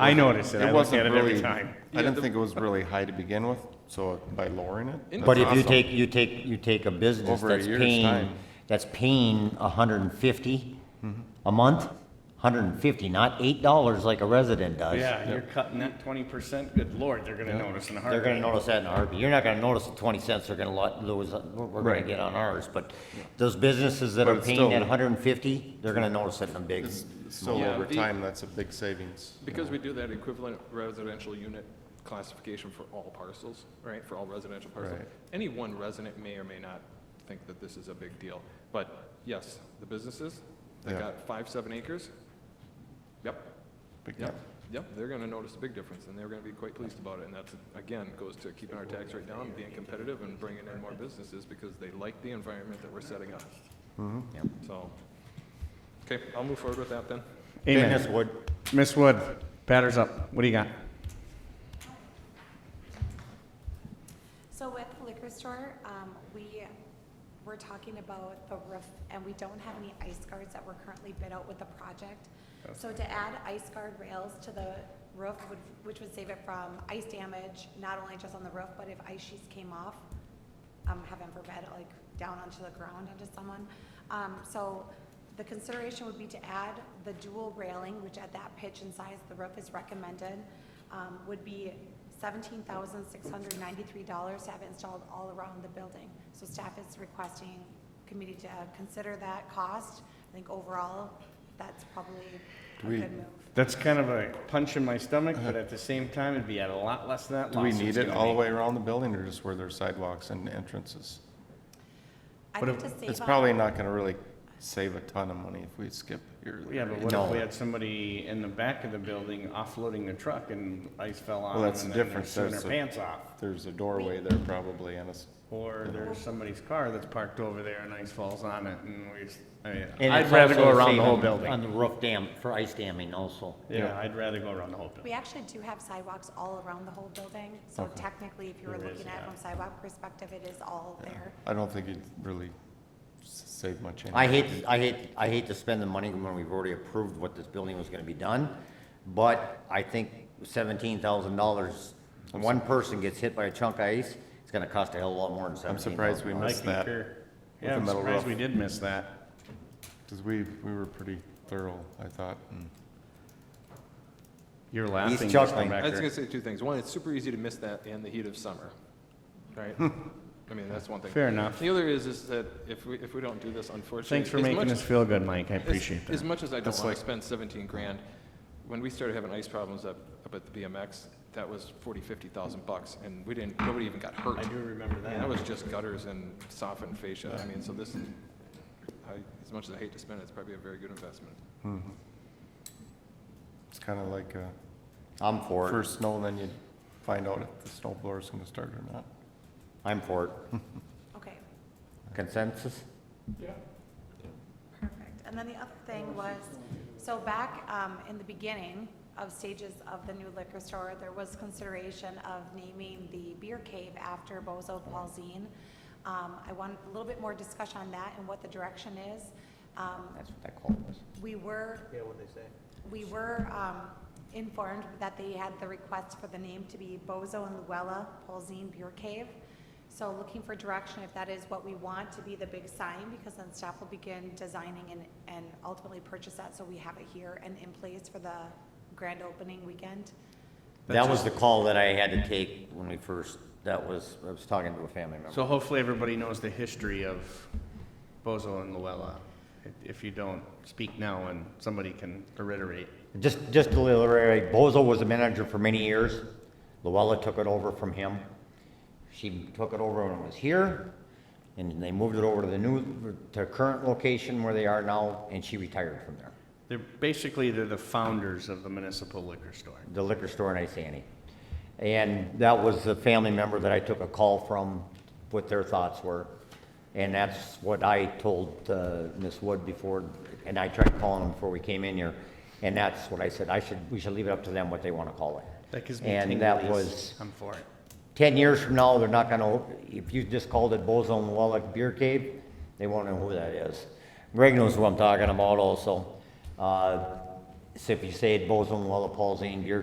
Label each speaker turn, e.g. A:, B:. A: I notice it. I look
B: wasn't
A: at it every
B: really-
A: time.
B: I didn't think it was really high to begin with, so by lowering it. that's
C: But if you
B: awesome.
C: take, you take, you take a business
B: Over a
C: that's
B: year's
C: paying,
B: time. Mm-hmm.
C: that's paying a hundred and fifty a month, hundred and fifty, not eight dollars like a resident does.
A: Yeah, you're cutting that twenty percent. Good lord, they're gonna notice in a
C: They're gonna
A: heartbeat.
C: notice that in a heartbeat. You're not gonna notice the twenty cents they're gonna lo- lose, uh, we're we're gonna
B: Right.
C: get on ours, but those businesses that
B: But
C: are
B: it's
C: paying
B: still-
C: that hundred and fifty, they're gonna notice it in a big.
B: So
D: Yeah,
B: over
D: the-
B: time, that's a big savings.
D: Because we do that equivalent residential unit classification for all parcels, right, for all residential parcels.
B: Right.
D: Any one resident may or may not think that this is a big deal, but yes, the businesses that
B: Yeah.
D: got five, seven acres, yep,
B: Big
D: yep,
B: time.
D: yep, they're gonna notice a big difference, and they're gonna be quite pleased about it, and that's, again, goes to keeping our tax rate down, being competitive, and bringing in more businesses, because they like the environment that we're setting up.
B: Mm-hmm.
C: Yep.
D: So, okay, I'll move forward with that then.
C: Dennis
A: Amen.
C: would,
A: Miss Wood, batter's up. What do you got?
E: So with the liquor store, um, we were talking about the roof, and we don't have any ice guards that were currently bid out with the project. So to add ice guard rails to the roof, would- which would save it from ice damage, not only just on the roof, but if ice sheets came off, um, heaven forbid, like down onto the ground onto someone. Um, so the consideration would be to add the dual railing, which at that pitch and size, the roof is recommended, um, would be seventeen thousand six hundred ninety-three dollars to have it installed all around the building. So staff is requesting committee to uh, consider that cost. I think overall, that's probably a
B: Do we-
E: good move.
A: That's kind of a punch in my stomach, but at the same time, it'd be at a lot less than that.
B: Do we
A: loss it's
B: need it
A: gonna
B: all the
A: be.
B: way around the building or just where there's sidewalks and entrances?
E: I
A: But
E: think
A: if-
E: to save
B: It's
E: on-
B: probably not gonna really save a ton of money if we skip here.
A: Yeah, but what
C: No.
A: if we had somebody in the back of the building offloading the truck and ice fell on
B: Well,
A: them
B: that's
A: and
B: the
A: then they're
B: difference.
A: suing their
B: That's the-
A: pants off?
B: There's a doorway there probably and it's,
A: Or there's somebody's car that's parked over there and ice falls on it and we, s- I mean,
C: and
A: I'd
C: it's
A: rather go
C: also
A: around the whole
C: saving On
A: building.
C: the roof dam, for ice damming also.
A: Yeah, I'd rather go around the whole building.
E: We actually do have sidewalks all around the whole building, so technically, if you were
A: There is,
E: looking at it
A: yeah.
E: from sidewalk perspective, it is all there.
B: I don't think it'd really s- save much.
C: I
B: anyway.
C: hate, to- I hate, I hate to spend the money when we've already approved what this building was gonna be done, but I think seventeen thousand dollars, one person gets hit by a chunk of ice, it's gonna cost a hell of a lot more than
B: I'm
C: seventeen
B: surprised
C: thousand.
B: we
A: I
B: missed that
A: concur.
B: With
A: Yeah,
B: the
A: I'm
B: metal
A: surprised
B: roof.
A: we did miss that.
B: because we, we were pretty thorough, I thought. and-
A: You're laughing. Mr.
C: chuckling.
A: Becker.
D: I was gonna say two things. One, it's super easy to miss that in the heat of summer, right? I mean, that's one thing.
A: Fair enough.
D: The other is, is that if we, if we don't do this, unfortunately.
A: Thanks for
D: as
A: making
D: much-
A: us feel good, Mike. I
D: as-
A: appreciate
D: As
A: that.
D: much as I don't
B: That's
D: wanna
B: like-
D: spend seventeen grand, when we started having ice problems up, up at the BMX, that was forty, fifty thousand bucks, and we didn't, nobody even got hurt.
A: I do remember
D: And
A: that.
D: that was just gutters and softened fascia. I mean, so this, is- I, as much as I hate to spend it, it's probably a very good investment.
B: It's kind of like, uh,
C: I'm for it,
B: first snow, then you find out if the snow blower's gonna start or not.
C: I'm for it.
E: Okay,
C: Consensus?
E: perfect. And then the other thing was, so back um, in the beginning of stages of the new liquor store, there was consideration of naming the beer cave after Bozo Paul Zine. Um, I want a little bit more discussion on that and what the direction is. Um,
C: That's what that call was.
E: We were. We were, um, informed that they had the request for the name to be Bozo and Luella Polzine Beer Cave. So looking for direction if that is what we want to be the big sign, because then staff will begin designing and, and ultimately purchase that, so we have it here and in place for the grand opening weekend.
C: That was the call that I had to take when we first, that was, I was talking to a family member.
A: So hopefully everybody knows the history of Bozo and Luella. If you don't, speak now and somebody can reiterate.
C: Just, just to reiterate, Bozo was the manager for many years. Luella took it over from him. She took it over when it was here, and they moved it over to the new, to current location where they are now, and she retired from there.
A: They're, basically, they're the founders of the municipal liquor store.
C: the liquor store in Isani. E. And that was the family member that I took a call from, what their thoughts were. And that's what I told uh, Ms. Wood before, and I tried calling them before we came in here. And that's what I said, I should, we should leave it up to them what they want to call it.
A: That gives me
C: And that
A: tinglies.
C: was
A: I'm for it.
C: 10 years from now, they're not gonna, if you just called it Bozo and Wallach Beer Cave, they won't know who that is. Greg knows who I'm talking about also. Uh, So if you say Bozo and Wallach Paul's Inn Beer